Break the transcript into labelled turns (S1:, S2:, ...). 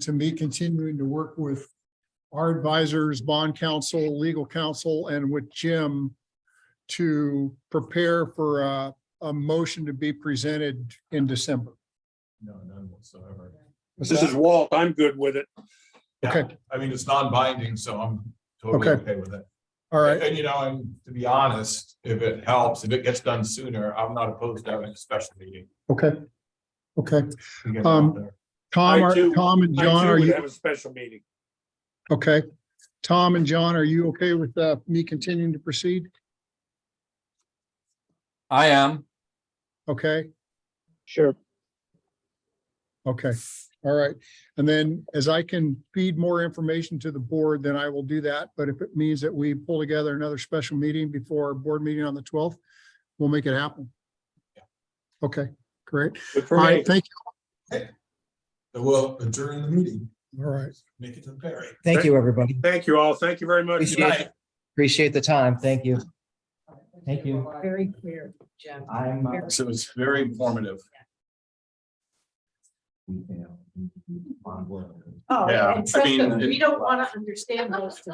S1: to me continuing to work with our advisors, bond counsel, legal counsel, and with Jim to prepare for a, a motion to be presented in December.
S2: No, none whatsoever.
S1: Was
S3: This
S1: that-
S3: is Walt. I'm good with it.
S1: Okay,
S2: I mean, it's non-binding, so I'm totally
S1: Okay.
S2: okay with it.
S1: all right,
S2: And you know, and to be honest, if it helps, if it gets done sooner, I'm not opposed to having a special meeting.
S1: okay. Okay,
S2: to get it
S1: Um,
S2: out there.
S1: Tom,
S3: I
S1: are-
S3: too-
S1: Tom and
S3: I
S1: John,
S3: too
S1: are
S3: would
S1: you,
S3: Have a special meeting.
S1: okay? Tom and John, are you okay with uh, me continuing to proceed?
S4: I am.
S1: Okay?
S3: Sure.
S1: Okay, all right. And then as I can feed more information to the board, then I will do that. But if it means that we pull together another special meeting before our board meeting on the twelfth, we'll make it happen. Okay, great.
S3: Good for
S1: All
S3: me.
S1: right, thank
S2: So We'll adjourn the meeting,
S1: you. All right.
S2: make it to the ferry.
S5: Thank you, everybody.
S3: Thank you all. Thank you very much.
S5: Appreciate it. Appreciate the time. Thank you. Thank you.
S6: Very clear, Jim.
S5: I'm. uh,
S2: So it's very informative.
S5: on board.
S6: Oh,
S2: Yeah, I
S6: and trust us,
S2: mean, it-
S6: Oh, we don't want to understand those.